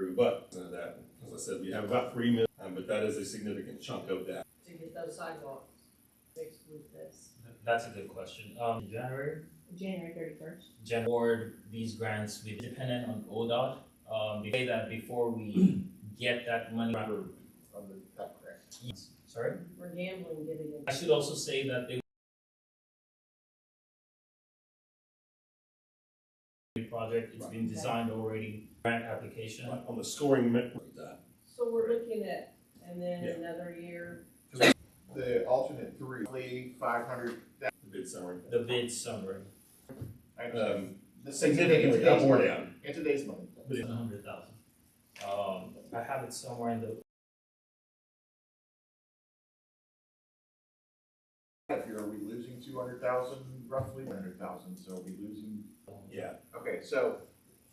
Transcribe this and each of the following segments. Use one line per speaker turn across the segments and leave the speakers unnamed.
rebut none of uh, that. As I said, we have about three million, um, but that is a significant chunk of that.
to get those sidewalks fixed with this.
That's a good question. Um, in January,
January thirty-first.
Jan award these grants, we dependent on ODOT. Um, they say that before we get that money.
on the top grant.
Sorry?
We're gambling getting
I
it.
should also say that they project, it's been designed already, grant application.
On the scoring, me- that.
So we're looking at, and then
Yeah.
another year,
The alternate three, five hundred,
the bid summary.
The bid summary,
Um,
the
significantly up or down.
In today's money.
bid one hundred thousand. Um, I have it somewhere in the,
If you're, are we losing two hundred thousand, roughly hundred thousand, so we losing.
Yeah,
Okay, so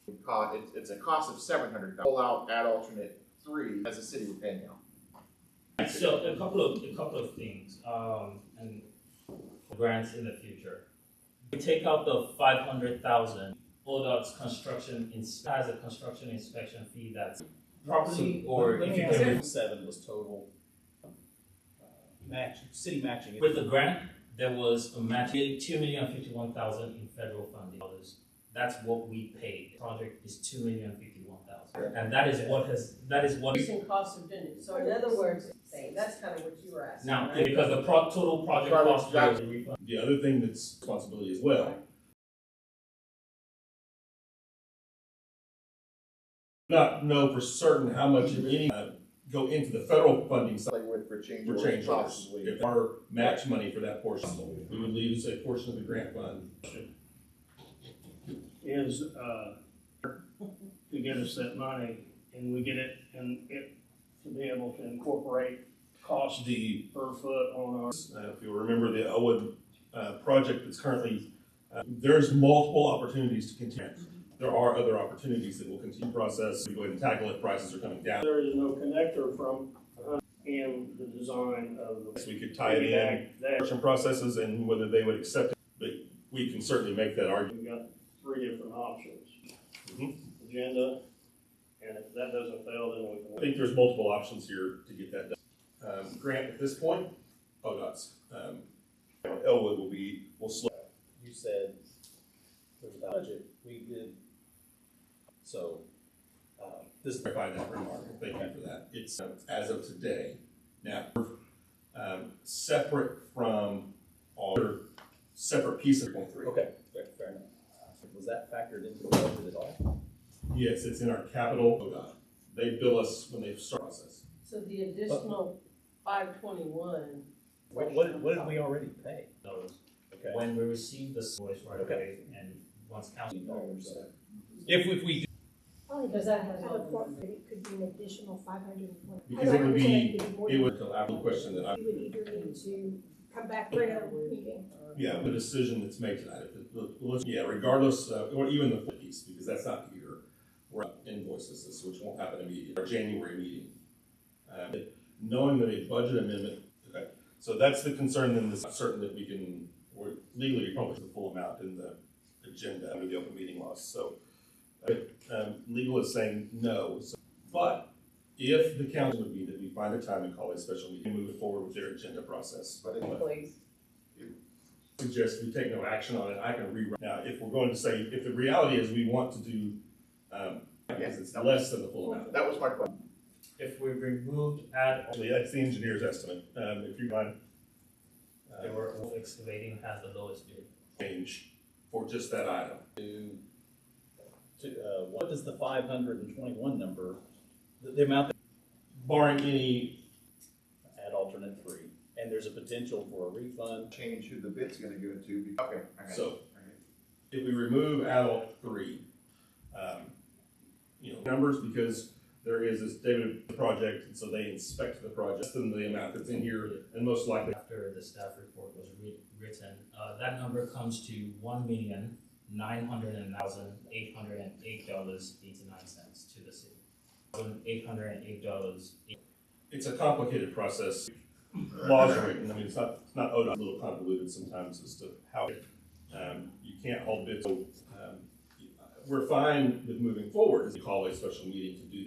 we caught, it's, it's a cost of seven hundred thousand, pull out at alternate three as a city we're paying now.
so a couple of, a couple of things, um, and grants in the future. We take out the five hundred thousand, ODOT's construction ins- has a construction inspection fee that's properly, or if you can.
Seven was total. uh, Match, city matching.
With the grant, there was a match, two million fifty-one thousand in federal funding dollars. That's what we paid. Project is two million fifty-one thousand. And that is what has, that is what,
increasing cost of doing it. So in other words, saying, that's kind of what you were asking,
now,
right?
because the pro, total project cost was refunded.
the other thing that's responsibility as well. Not know for certain how much of any, uh, go into the federal funding side
Like with, for change
for
orders,
change orders.
possibly.
If our match money for that portion, we would lose a portion of the grant fund.
is, uh, to get us that money, and we get it, and it, to be able to incorporate cost
The
per foot on our.
Uh, if you remember the Elwood, uh, project that's currently, uh, there's multiple opportunities to continue. There are other opportunities that will continue the process, we go ahead and tackle it, prices are coming down.
There is no connector from, uh, in the design of
So
the.
we could tie it in,
That,
construction processes and whether they would accept it, but we can certainly make that argument.
we've got three different options.
Mhm.
Agenda, and if that doesn't fail, then we can.
I think there's multiple options here to get that done. Um, grant at this point, ODOT's, um, Elwood will be, will slow.
You said there's a budget, we did, so, um, this.
clarify that remark, thank you for that. It's uh, as of today. Now, um, separate from all other separate pieces. of three.
Okay, fair, fair enough. Was that factored into the budget at all?
Yes, it's in our capital. ODOT. They bill us when they start process.
So the additional five twenty-one.
What, what, what did we already pay?
dollars.
Okay.
When we received this invoice right away, and once counting dollars.
Dollars. If, if we
Probably
Does that have-
California, but it could be an additional five hundred and twenty.
Because it would be- It was the last question that I,
We would either need to come back for another meeting.
uh,
yeah, the decision that's made tonight. if it- look- look- Yeah, regardless, uh, or even the piece, because that's not here. We're up invoices, this- which won't happen immediately, our January meeting. Um, knowing that a budget amendment, okay, so that's the concern, then it's certain that we can, we're legally probably the full amount in the agenda under the open meeting laws, so. uh, Um, legal is saying no, so- but if the council would be that we find a time and call a special meeting, and move forward with their agenda process.
But it-
Please.
Suggest we take no action on it, I can rewrite, now, if we're going to say, if the reality is we want to do, um, because it's less than the full amount.
That was my question.
If we removed add,
Actually, that's the engineer's estimate, um, if you mind.
they
Uh,
were all excavating has the lowest bid.
change for just that item.
do, to, uh, what does the five hundred and twenty-one number, the, the amount
Barring any,
that at alternate three? And there's a potential for a refund,
Change who the bid's gonna go to. be- Okay, I got it.
so
I got it.
if we remove adult three, um, you know, numbers, because there is this David project, and so they inspect the project, and the amount that's in here, and most likely,
after the staff report was writ- written, uh, that number comes to one million, nine hundred and thousand, eight hundred and eight dollars, eighty-nine cents to the city. Eight hundred and eight dollars.
it's a complicated process. Laws are written, I mean, it's not, it's not ODOT, a little convoluted sometimes as to how, um, you can't hold bids. So, um, We're fine with moving forward, as you call a special meeting to do